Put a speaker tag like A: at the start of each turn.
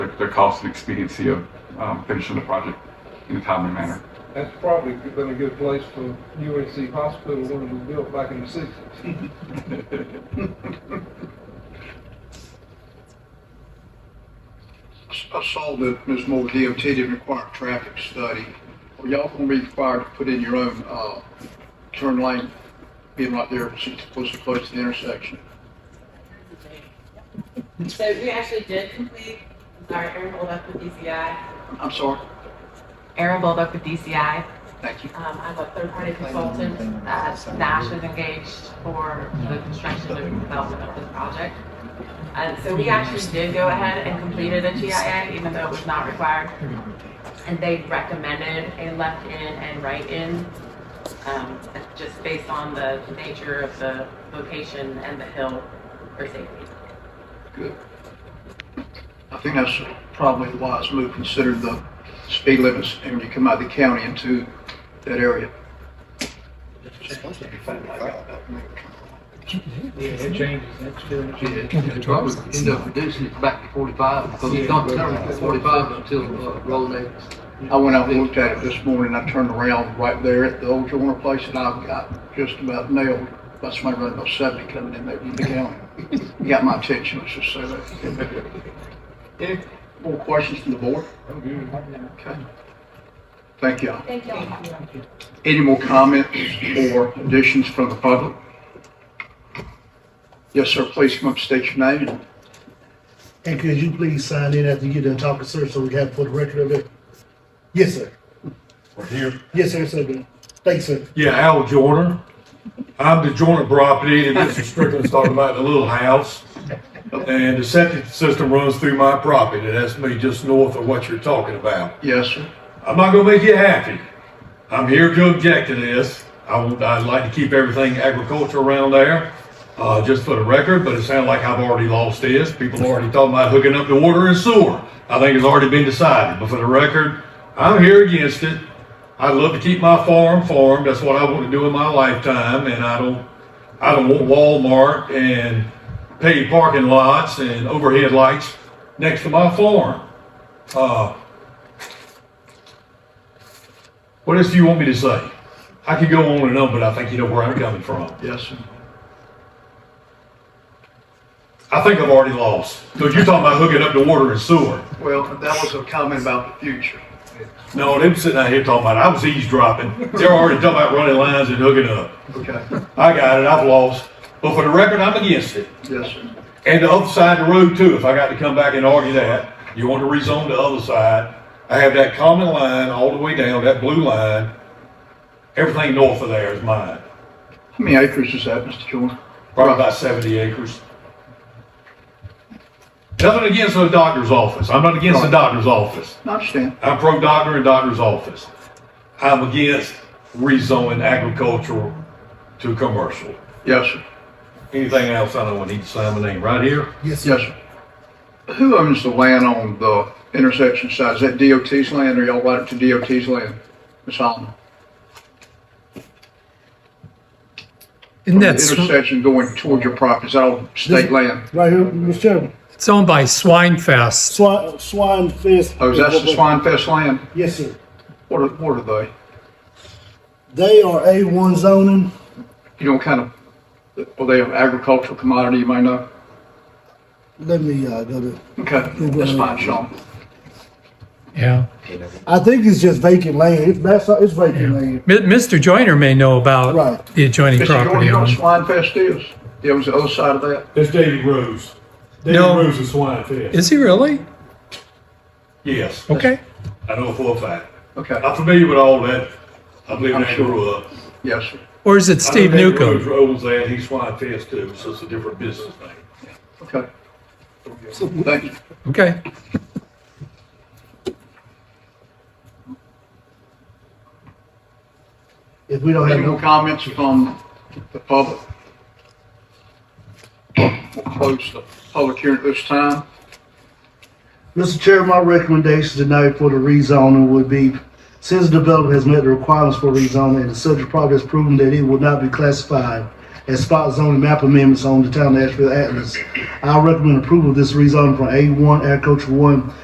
A: the cost and expediency of um, finishing the project in a timely manner.
B: That's probably been a good place for UNC Hospital when it was built back in the sixties.
C: I saw that Ms. Moore, DOT didn't require a traffic study. Are y'all gonna be required to put in your own, uh, turn lane, being right there, since it's supposed to close to the intersection?
D: So we actually did complete, I'm sorry, Aaron Bold up with DCI.
C: I'm sorry,
D: Aaron Bold up with DCI.
C: thank you.
D: Um, I'm a third-party consultant that Nash has engaged for the construction and development of this project. And so we actually did go ahead and completed a GIA, even though it was not required. And they recommended a left-in and right-in, um, just based on the nature of the location and the hill for safety.
C: I think that's probably a wise move, considering the speed limits, and when you come out of the county into that area.
E: It's supposed to be 45.
F: Yeah, it changes, that's true.
G: It's probably end up reducing it back to forty-five, because it's not covered for forty-five until, uh, road Davis.
C: I went out and looked at it this morning, I turned around right there at the old Joiner place, and I've got just about nailed by somebody running about seventy coming in there from the county. Got my attention, let's just say that. Any more questions from the board? Okay. Thank y'all.
H: Thank y'all.
C: Any more comments or additions from the public? Yes, sir, please come up, state your name, and
I: And could you please sign in after you get done talking, sir, so we have for the record of it? Yes, sir.
J: We're here.
I: Yes, sir, sir. Thanks, sir.
J: Yeah, Al Joyner. I'm the Joyner property, and Mr. Strickland's talking about the little house. And the septic system runs through my property, and that's me just north of what you're talking about.
C: yes, sir.
J: I'm not gonna make you happy. I'm here to object to this. I would, I'd like to keep everything agriculture around there, uh, just for the record, but it sounds like I've already lost this. People are already talking about hooking up the water and sewer. I think it's already been decided, but for the record, I'm here against it. I'd love to keep my farm farmed. That's what I want to do in my lifetime, and I don't, I don't want Walmart and paid parking lots and overhead lights next to my farm. Uh, what else do you want me to say? I could go on and on, but I think you know where I'm coming from.
C: Yes, sir.
J: I think I've already lost. So you're talking about hooking up the water and sewer.
C: Well, that was a comment about the future.
J: No, them sitting out here talking about I was eavesdropping. They're already talking about running lines and hooking up.
C: Okay,
J: I got it. I've lost. But for the record, I'm against it.
C: yes, sir.
J: And the other side of the road too, if I got to come back and argue that, you want to rezone the other side. I have that common line all the way down, that blue line. Everything north of there is mine.
C: How many acres is that, Mr. Joyner?
J: probably about 70 acres. Nothing against the doctor's office. I'm not against the
C: Right.
J: doctor's office.
C: I understand.
J: I'm pro doctor and doctor's office. I'm against rezoning agricultural to commercial.
C: Yes, sir.
J: Anything else, I don't need to sign my name right here.
I: Yes, sir.
C: Yes, sir. Who owns the land on the intersection side? Is that DOT's land or y'all right up to DOT's land? Ms. Holloman?
K: And
C: The
K: that's,
C: intersection going toward your property, is that all state land?
I: Right here, Mr. Chairman.
K: it's owned by Swinefest.
I: Swine, swine fence.
C: Oh, is that the Swine Fest land?
I: Yes, sir.
C: What are, what are they?
I: They are A1 zoning.
C: You don't kind of, are they an agricultural commodity you might know?
I: Let me, uh, go to,
C: Okay, that's fine, Sean.
K: Yeah.
I: I think it's just vacant land. It's, that's, it's vacant land.
K: Mi- Mr. Joyner may know
I: Right.
K: about the adjoining
C: Mr. Jordan,
K: property.
C: you know what
K: owner.
C: Swine Fest is? Yeah, it was the other side of that?
F: That's Davy Rose. Davy
K: No.
F: Rose is swine fed.
K: Is he really?
J: Yes,
K: Okay.
J: I know for a fact.
C: Okay,
J: I'm familiar with all that. I believe
C: I'm
J: I
C: sure.
J: grew up.
C: yes, sir.
K: Or is it Steve
J: I know Dave Rhodes
K: Newcomb?
J: Owns that, he's swine fest too, so it's a different business name.
C: Okay. Thank you.
K: Okay.
I: If we don't have
C: Any
I: no
C: more comments from the public? We'll close the public hearing at this time.
I: Mr. Chair, my recommendation tonight for the rezoning would be, since the developer has met the requirements for rezoning and the subject property has proven that it will not be classified as spot zoning map amendments on the town of Asheville Atlas, I recommend approval of this rezoning from A1 agriculture one